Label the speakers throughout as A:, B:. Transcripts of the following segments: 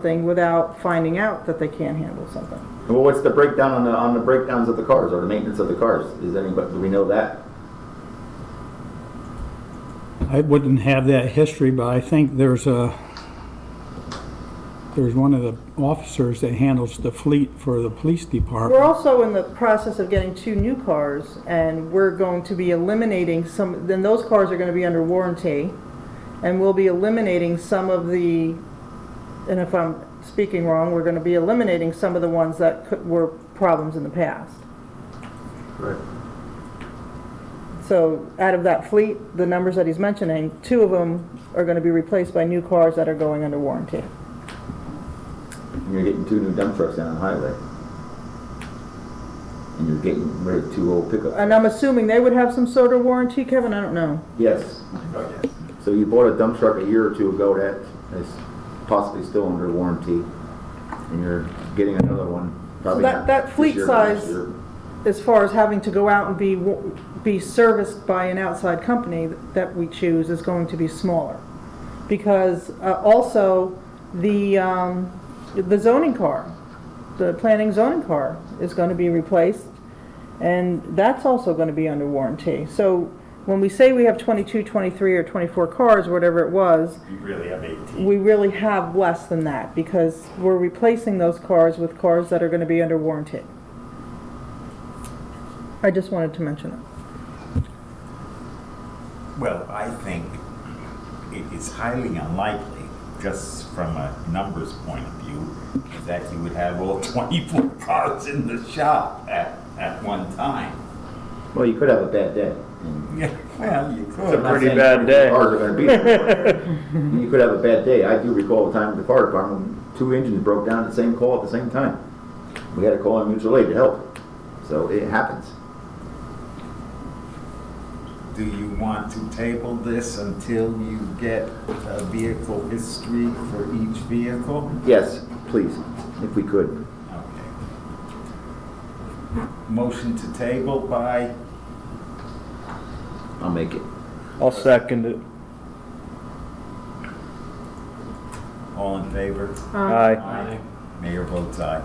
A: something without finding out that they can't handle something.
B: Well, what's the breakdown on the, on the breakdowns of the cars or the maintenance of the cars? Is anybody, do we know that?
C: I wouldn't have that history, but I think there's a, there's one of the officers that handles the fleet for the police
A: We're
C: department.
A: also in the process of getting two new cars, and we're going to be eliminating some, then those cars are gonna be under warranty, and we'll be eliminating some of the, and if I'm speaking wrong, we're gonna be eliminating some of the ones that could- were problems in the past.
B: Right.
A: So out of that fleet, the numbers that he's mentioning, two of them are gonna be replaced by new cars that are going under warranty.
B: You're getting two new dump trucks down the highway. And you're getting rid of two old pickups.
A: And I'm assuming they would have some sort of warranty, Kevin, I don't know.
B: Yes. So you bought a dump truck a year or two ago that is possibly still under warranty. And you're getting another one. probably
A: that-
B: not
A: that
B: this
A: fleet
B: year, but next
A: size-
B: year.
A: as far as having to go out and be, be serviced by an outside company that we choose is going to be smaller. Because uh, also, the, um, the zoning car, the planning zoning car is gonna be replaced, and that's also gonna be under warranty. So when we say we have 22, 23, or 24 cars, whatever it was,
D: You really have 18.
A: we really have less than that, because we're replacing those cars with cars that are gonna be under warranty. I just wanted to mention it.
D: Well, I think it is highly unlikely, just from a numbers point of view, that you would have all 24 cars in the shop at, at one time.
B: Well, you could have a bad day. and-
D: Yeah, well, you could.
B: I'm not
E: pretty
B: saying
E: bad
B: 24
E: day.
B: Cars are gonna be there. You could have a bad day. I do recall the time at the fire department, when two engines broke down at the same call at the same time. We had to call in mutual aid to help. So it happens.
D: Do you want to table this until you get a vehicle history for each vehicle?
B: Yes, please, if we could.
D: Okay. Motion to table by
B: I'll make it.
E: I'll second it.
D: all in favor?
E: Aye.
D: Mayor votes aye.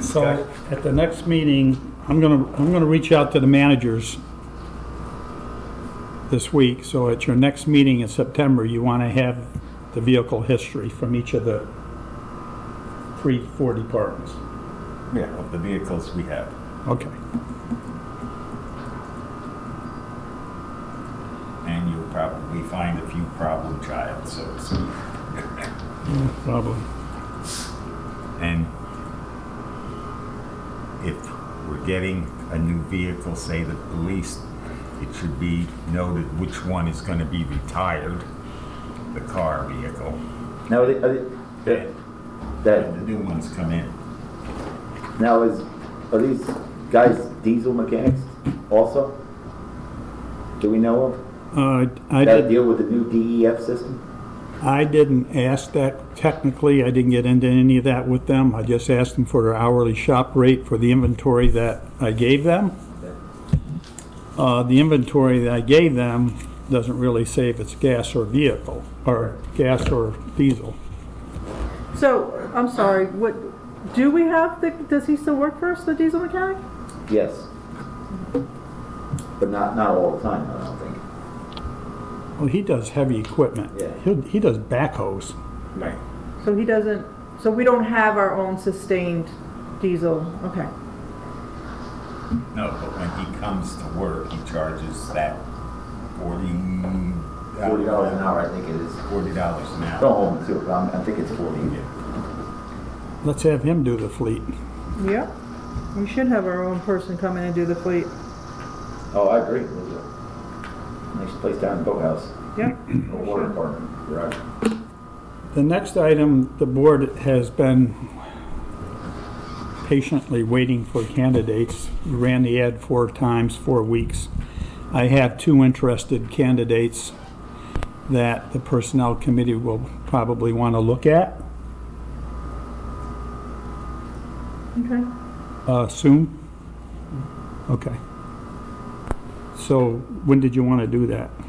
C: So at the next meeting, I'm gonna, I'm gonna reach out to the managers this week, so at your next meeting in September, you wanna have the vehicle history from each of the three, four departments.
D: Yeah, of the vehicles we have.
C: Okay.
D: And you'll probably find a few problem child, so to speak.
C: Probably.
D: And if we're getting a new vehicle, say the police, it should be noted which one is gonna be retired, the car vehicle,
B: Now, are they- are they-
D: and
B: that,
D: the new ones come in.
B: now is, are these guys diesel mechanics also? Do we know of?
C: Uh, I did.
B: That deal with the new DEF system?
C: I didn't ask that technically, I didn't get into any of that with them. I just asked them for their hourly shop rate for the inventory that I gave them. Uh, the inventory that I gave them doesn't really say if it's gas or vehicle, or gas or diesel.
A: So, I'm sorry, what, do we have, the does he still work for us, the diesel mechanic?
B: Yes. But not, not all the time, I don't think.
C: Well, he does heavy equipment.
B: Yeah.
C: He'll- He does backhoes.
D: Right.
A: So he doesn't, so we don't have our own sustained diesel, okay.
D: No, but when he comes to work, he charges that forty. uh,
B: Forty dollars an hour, I think it is.
D: Forty dollars an
B: Don't
D: hour.
B: hold me to it, but I'm- I think it's forty.
C: Let's have him do the fleet.
A: Yeah, we should have our own person come in and do the fleet.
B: Oh, I agree. It was a Nice place down in Boathouse,
A: Yeah.
B: or water department. Right.
C: The next item, the board has been patiently waiting for candidates. We Ran the ad four times, four weeks. I have two interested candidates that the Personnel Committee will probably want to look at
A: Okay.
C: uh, soon. Okay. So when did you want to do that?